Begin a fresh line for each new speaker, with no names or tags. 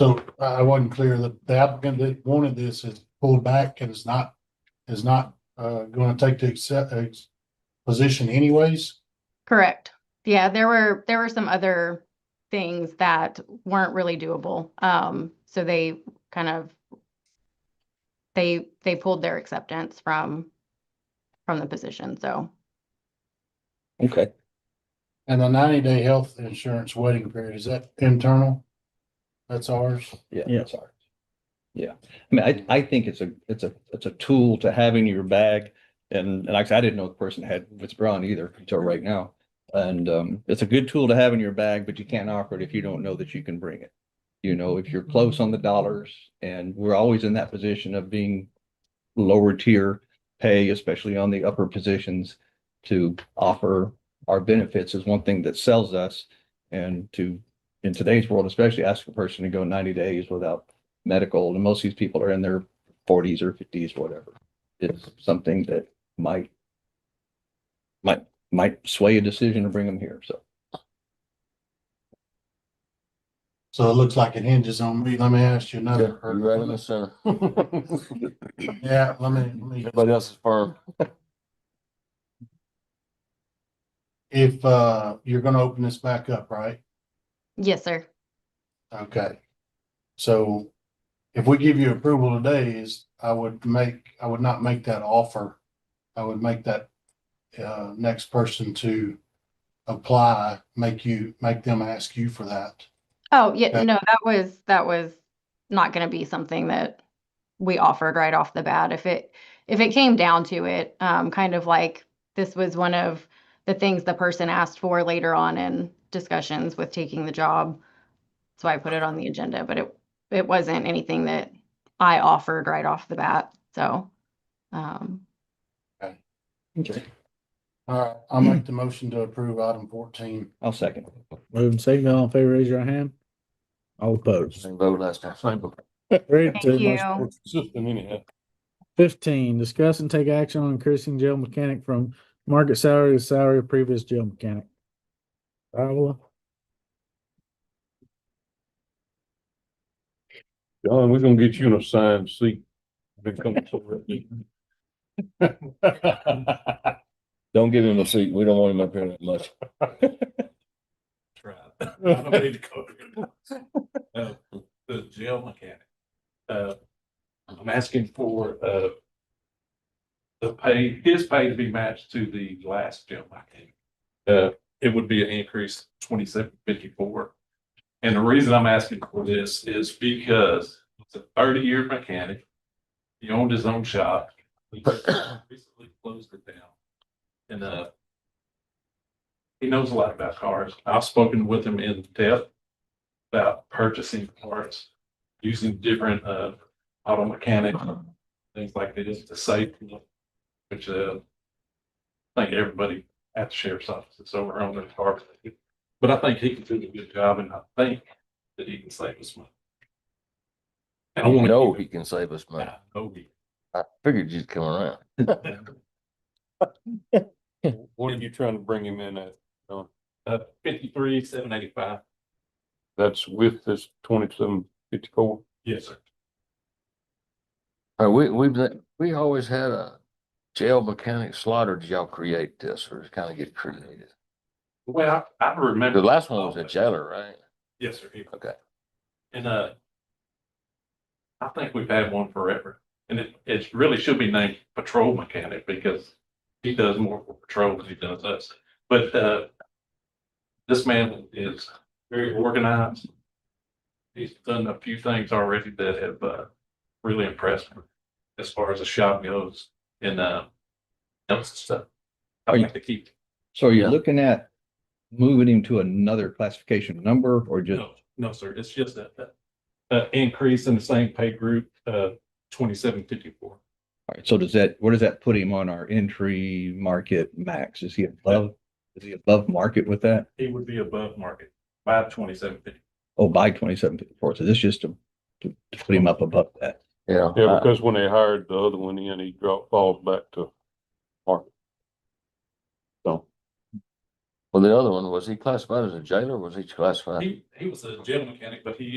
So I I wasn't clear that the applicant that wanted this is pulled back and is not, is not, uh, gonna take the accept, uh, position anyways?
Correct. Yeah, there were, there were some other things that weren't really doable. Um, so they kind of they they pulled their acceptance from from the position. So
Okay,
And the ninety day health insurance waiting period, is that internal? That's ours?
yeah.
Yeah.
that's all right. Yeah, I mean, I, I think it's a, it's a, it's a tool to have in your bag. And, and like I said, I didn't know the person had withdrawn either until right now. And, um, it's a good tool to have in your bag, but you can't offer it if you don't know that you can bring it. You know, if you're close on the dollars and we're always in that position of being lower tier pay, especially on the upper positions. To offer our benefits is one thing that sells us and to in today's world, especially ask a person to go ninety days without medical, and most of these people are in their forties or fifties, whatever. It's something that might might might sway a decision to bring them here, so.
So it looks like it hinges on me. Let me ask you
Yeah,
another.
You're right in the center.
Yeah, let me, let me.
Everybody else is firm.
If, uh, you're gonna open this back up, right?
yes, sir.
Okay. So if we give you approval today is, I would make, I would not make that offer. I would make that, uh, next person to apply, make you, make them ask you for that.
Oh, yeah,
Okay.
no, that was that was not gonna be something that we offered right off the bat. If it if it came down to it, um, kind of like this was one of the things the person asked for later on in discussions with taking the job. So I put it on the agenda, but it it wasn't anything that I offered right off the bat. So um
Okay.
All right, I'll make the motion to approve item fourteen.
I'll second.
Moving second, all in favor, raise your hand. All opposed.
Same vote last time, same vote.
Three,
Thank
two,
you.
motion carries.
System anyhow.
Fifteen, discuss and take action on increasing jail mechanic from market salary to salary of previous jail mechanic. Viola,
John, we're gonna get you in a signed seat. Been coming so ready. Don't give him a seat. We don't want him up here that much.
I don't need to go there. Uh, The jail mechanic. Uh, I'm asking for, uh, the pay, his pay to be matched to the last jail mechanic. Uh, it would be an increase twenty-seven fifty-four. And the reason I'm asking for this is because it's a thirty-year mechanic. He owned his own shop. He recently closed it down. And, uh, he knows a lot about cars. I've spoken with him in depth about purchasing parts, using different uh auto mechanics, things like this to save, which uh I think everybody at the sheriff's office is over on their car. But I think he can do a good job and I think that he can save us money. And I
You
want to.
know he can save us money.
I know he-
I figured you'd come around.
What are you trying to bring him in at?
Uh, fifty-three, seven eighty-five.
That's with this twenty-seven fifty-four?
Yes, sir.
Uh, we, we've, let- we always had a jail mechanic slaughter. Did y'all create this or kind of get created?
Well, I I remember. Oh,
The last one was a jailer, right?
Yes, sir. he-
Okay.
And, uh, I think we've had one forever and it, it really should be named patrol mechanic because he does more for patrol than he does us. But, uh, this man is very organized. He's done a few things already that have, uh, really impressed me as far as the shop goes and, uh, else stuff. I
Are you-
like to keep,
So are you
Yeah.
looking at moving him to another classification number or just,
No, no, sir, it's just a, a- a increase in the same pay group, uh, twenty-seven fifty-four.
all right, so does that, where does that put him on our entry market max? Is he above, is he above market with that?
He would be above market by twenty-seven fifty.
Oh, by twenty-seven fifty-four, so this just to, to to put him up above that.
Yeah. Uh,
Yeah,
I-
because when they hired the other one in, he dropped, falls back to market. So,
Well, the other one, was he classified as a jailer? or Was he classified?
He, he was a jail mechanic, but he